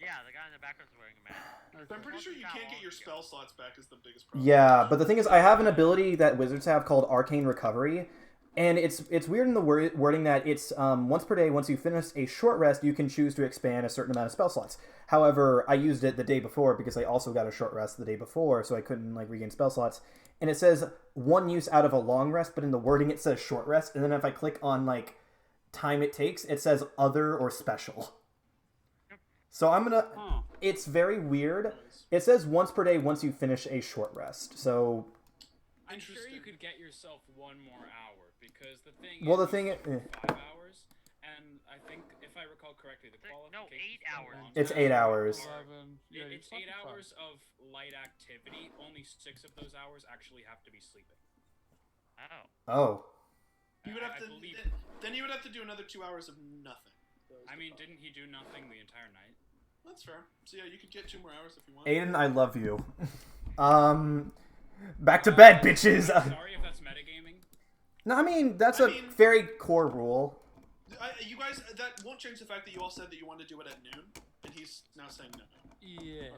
yeah, the guy in the background's wearing a mask. But I'm pretty sure you can't get your spell slots back. Is the biggest problem. Yeah, but the thing is, I have an ability that wizards have called Arcane Recovery, and it's it's weird in the wor- wording that it's um, once per day. Once you finish a short rest, you can choose to expand a certain amount of spell slots. However, I used it the day before because I also got a short rest the day before, so I couldn't like regain spell slots. And it says one use out of a long rest, but in the wording it says short rest. And then if I click on like time it takes, it says other or special. So I'm gonna. Huh. It's very weird. It says once per day once you finish a short rest. So I'm sure you Interesting. could get yourself one more hour because the thing. Well, is the thing you i- sleep for eh. Five hours, and I think if I recall correctly, the It's like- no, qualification. eight hours. It's eight hours. Eleven. Yeah, you're it's eight fucking fine. hours of light activity. Only six of those hours actually have to be sleeping. Oh. oh, You would have I- I to. believe- then- Then you would have to do another two hours of nothing. That was I the mean, problem. didn't he do nothing the entire night? That's fair. So yeah, you could get two more hours if you want. Aiden, I love you. Um, back to bed, bitches. Sorry if that's metagaming. No, I mean that's I a mean- very core rule. I, you guys, that won't change the fact that you all said that you wanted to do it at noon, and he's now saying no. Yeah.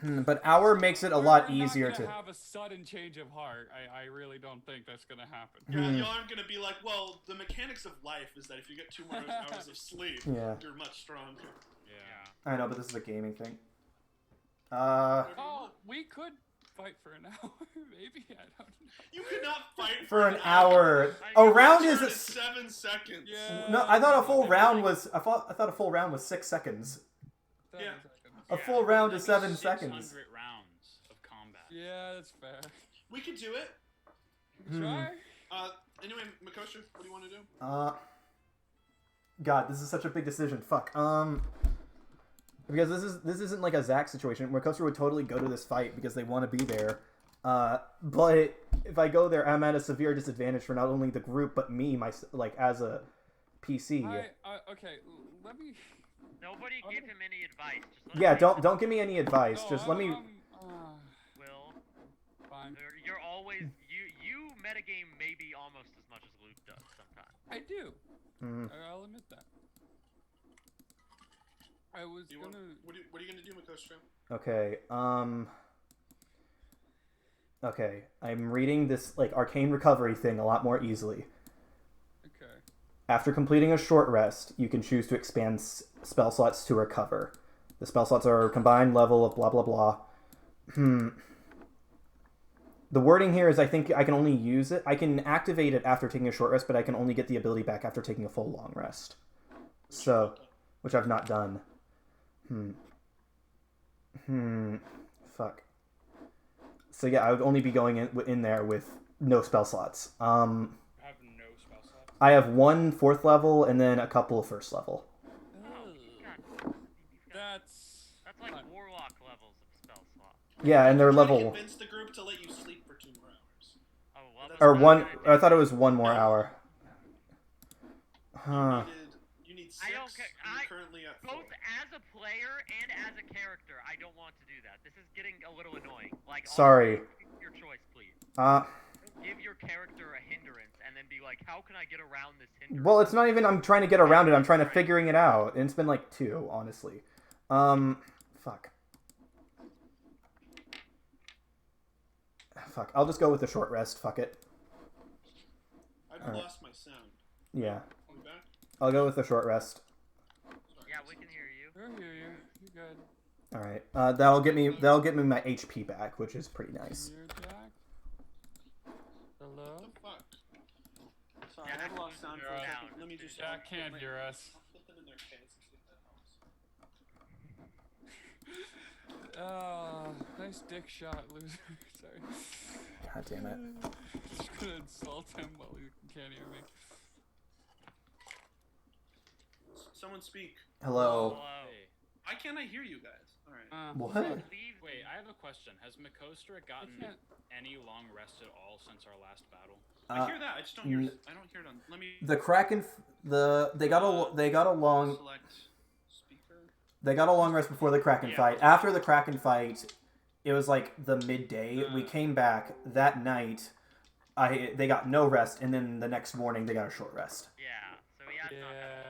Hmm, But hour makes it a We're- lot we're not easier gonna to. have a sudden change of heart. I, I really don't think that's gonna happen. Yeah, y'all aren't gonna be like, well, the mechanics of life is that if you get two more hours of sleep, Yeah. you're much stronger. Yeah. I know, but this is a gaming thing. Uh, Oh, we could fight for an hour, maybe. I don't know. You could not fight for an hour, a round Turn is. is A... s- seven seconds. Yeah. No, I thought a full round was. I thought I thought a full round was six seconds. Seven Yeah. seconds. A full round is seven Six seconds. hundred rounds of combat. Yeah, that's fair. We could do it. Hmm. Try. Uh, anyway, Makosha, what do you want to do? Uh, God, this is such a big decision. Fuck. Um, because this is this isn't like a Zack situation. Mercosa would totally go to this fight because they want to be there. Uh, but if I go there, I'm at a severe disadvantage for not only the group but me, my like as a PC. I, I, Uh, okay, l- let me. Nobody I'm give gonna- him any advice. Just let yeah, him don't do don't give me any advice. no, Just I'm- let me. I'm, um, uh, Will. fine. You're- You're always you you metagame maybe almost as much as Luke does sometimes. I do. Mm. I- I'll admit that. I was Do you want, gonna. what, are you, what are you gonna do, Makosha? Okay. Um. Okay, I'm reading this like arcane recovery thing a lot more easily. Okay. After completing a short rest, you can choose to expand s- spell slots to recover. The spell slots are combined level of blah blah blah. Hmm. The wording here is I think I can only use it. I can activate it after taking a short rest, but I can only get the ability back after taking a full long rest. So, which I've not done. Hmm. Hmm. Fuck. So yeah, I would only be going in, in there with no spell slots. Um. You have no spell slots. I have one fourth level and then a couple of first level. Oh, Ugh. you've got, you've got, That's. that's like not- warlock levels of spell slot. Yeah, and they're Try to level Convince the group to let you sleep for two more hours. Oh, well, Or that's or not one. gonna I do- thought it was one more hour. Huh. You need- You need six. I don't care- and you're I- currently at four. Both as a player and as a character, I don't want to do that. This is getting a little annoying. Like, all- Sorry. your choice, please. Uh. Give your character a hindrance, and then be like, "How can I get around this hindrance?" Well, it's not even. I'm trying to get around it. I'm trying to figuring it out, and it's been like two, honestly. Um. Fuck. Fuck. I'll just go with the short rest. Fuck it. I've Alright. lost my sound. Yeah. Are we back? I'll go with the short rest. Sorry. yeah, we can hear you. I hear you. You're good. All right. Uh, that'll get me. That'll get me my HP back, which is pretty nice. You're Jack. Hello. What the fuck? Sorry, Yeah, I have I lost can sound hear for a you. second. Let me just. Jack can't hear us. Oh, nice dick shot, loser. Sorry. God damn it. Just gonna insult him while he can't hear me. Someone speak. Hello. Hello. Hey. Why can't I hear you guys? Alright. Uh, What? Leave Wait, I have a question. Has Makostra I gotten can't. any long rest at all since our last battle? I hear that. I just don't hear. Uh, n- I don't hear it on. Let me the um, Kraken, f- the they got a they got a long select speaker. they got a long rest before the Kraken Yeah. fight. After the Kraken fight, it was like the midday. we came back that night. I they got no rest, and then the next morning they got a short rest. Yeah. So he has not had a